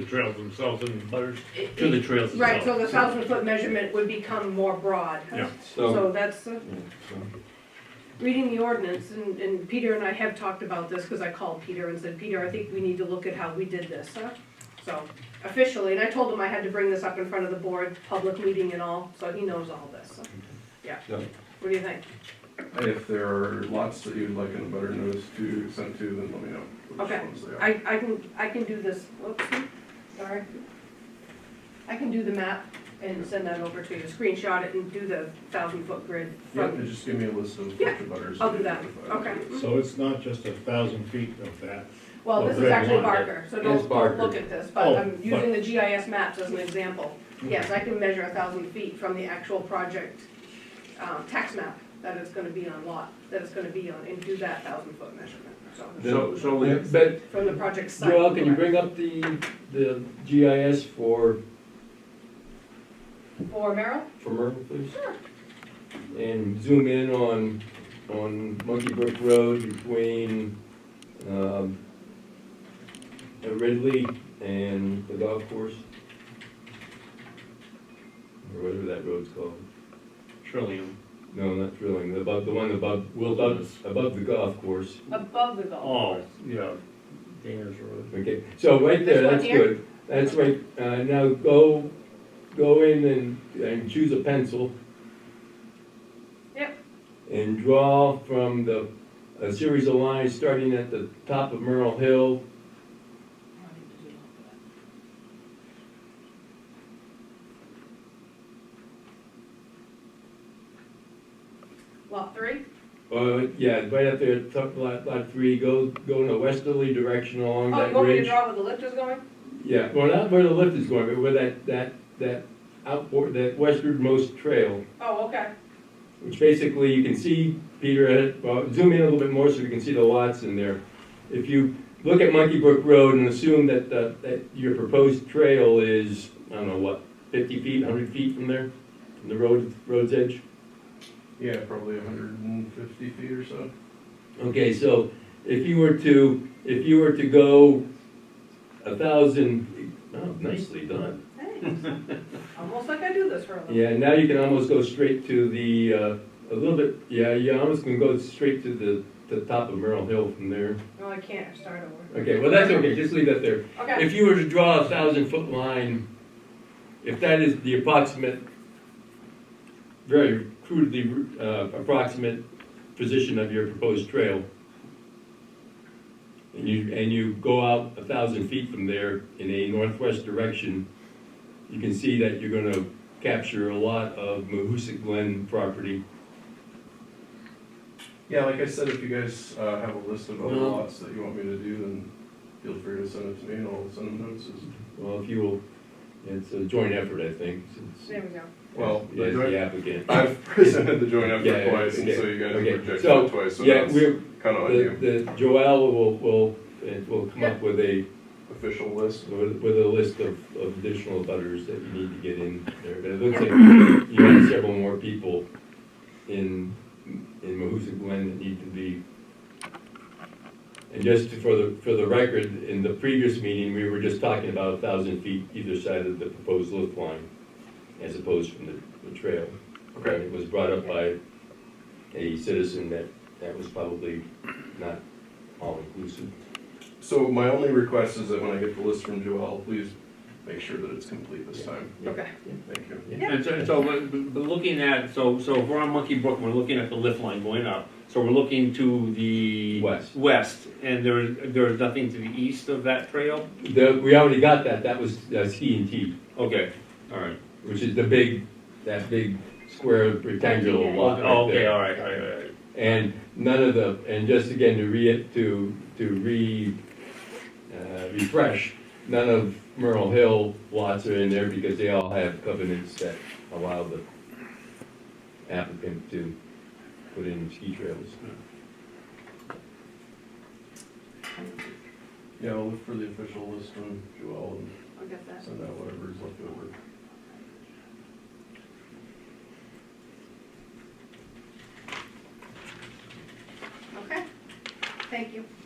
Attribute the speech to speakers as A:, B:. A: the trails themselves and the butters to the trails
B: Right, so
A: themselves.
B: the thousand foot measurement would become more broad.
A: Yeah.
B: So that's, the- reading the ordinance, and, and Peter and I have talked about this, cause I called Peter and said, Peter, I think we need to look at how we did this, huh? So officially, and I told him I had to bring this up in front of the board, public meeting and all, so he knows all this, so, yeah.
C: Yeah.
B: What do you think?
C: If there are lots that you'd like in a butter notice to send to, then let me know which
B: Okay.
C: ones they are.
B: I, I can, I can do this, whoops, sorry. I can do the map and send that over to you, screenshot it and do the thousand foot grid
C: Yeah,
B: from
C: and just give me a list of
B: Yeah,
C: which butters.
B: I'll
C: they
B: do that,
C: identified.
B: okay.
D: So it's not just a thousand feet of that.
B: Well, this is
D: Well,
B: actually
D: red line.
B: Barker, so
E: It is
B: don't, don't
E: Barker.
B: look at this, but
D: Oh,
B: I'm using the GIS maps as an example. Yes, I can measure a thousand feet from the actual project, um, tax map that it's gonna be on lot, that it's gonna be on, and do that thousand foot measurement, so,
E: So, so, we- but
B: from the project site.
E: Joel, can you
B: correct.
E: bring up the, the GIS for,
B: Or Merrill?
E: for Merkel, please?
B: Sure.
E: And zoom in on, on Monkey Brook Road between, um, Ridley and the golf course? Or whatever that road's called.
A: Trillium.
E: No, not drilling, the above, the one above, Will Douglas, above the golf course.
B: Above the
A: Oh, yeah, Danner's Road.
E: Okay, so right
B: This
E: there,
B: one
E: that's
B: here?
E: good. That's right, uh, now go, go in and, and choose a pencil.
B: Yep.
E: And draw from the, a series of lines starting at the top of Merle Hill.
B: Lot three?
E: Uh, yeah, right up there, top lot, lot three, go, go in a westerly direction along
B: Oh,
E: that
B: you want me to
E: ridge.
B: draw where the lift is going?
E: Yeah, well, not where the lift is going, but where that, that, that outboard, that westernmost trail.
B: Oh, okay,
E: which basically you can see, Peter, well, zoom in a little bit more so we can see the lots in there. If you look at Monkey Brook Road and assume that, the- that your proposed trail is, I don't know, what, fifty feet, hundred feet from there? From the road, road's edge?
C: Yeah, probably hundred and fifty feet or so.
E: Okay, so if you were to, if you were to go a thousand, oh, nicely done.
B: thanks. Almost like I do this for a living.
E: Yeah, now you can almost go straight to the, uh, a little bit, yeah, you almost can go straight to the, the top of Merrill Hill from there.
B: No, I can't, start over.
E: Okay, well, that's okay, just leave that there.
B: Okay,
E: If you were to draw a thousand foot line, if that is the approximate, very crudely uh, approximate position of your proposed trail, and you, and you go out a thousand feet from there in a northwest direction, you can see that you're gonna capture a lot of Mahoosic Glen property.
C: Yeah, like I said, if you guys, uh, have a list of other
E: No.
C: lots that you want me to do, then feel free to send it to me and I'll send them notices.
E: Well, if you will, it's a joint effort, I think, since,
B: there we go.
C: Well, the
E: as
C: joint-
E: the applicant.
C: I've presented the joint effort
E: Yeah,
C: twice, and
E: okay,
C: so you guys
E: okay.
C: rejected
E: So,
C: it twice, so
E: Yeah,
C: that's
E: we're,
C: kinda on
E: The,
C: you.
E: the Joel will, will, it will come up with a,
C: Official list.
E: with with a list of, of additional butters that you need to get in there, but it looks like you have several more people in, in Mahuza Glen that need to be. And just for the, for the record, in the previous meeting, we were just talking about a thousand feet either side of the proposed lift line, as opposed from the, the trail. And
C: Okay,
E: It was brought up by a citizen that, that was probably not all inclusive.
C: so my only request is that when I get the list from Joel, please make sure that it's complete this time.
B: Okay.
C: Thank you.
A: And so, so, but, but but looking at, so, so if we're on Monkey Brook, we're looking at the lift line going up. So we're looking to the.
E: West.
A: West, and there, there is nothing to the east of that trail?
E: The, we already got that, that was uh, C and T,
A: Okay, all right.
E: which is the big, that big square rectangular lot right
A: Oh, Okay,
E: there.
A: all right, all right, all right.
E: And none of the, and just again to re, to, to re, uh, refresh, none of Merle Hill lots are in there because they all have covenants that allow the applicant to put in ski trails.
C: Yeah, I'll look for the official list from Joel and
B: I'll get that.
C: send out whatever is left over.
B: Okay, thank you.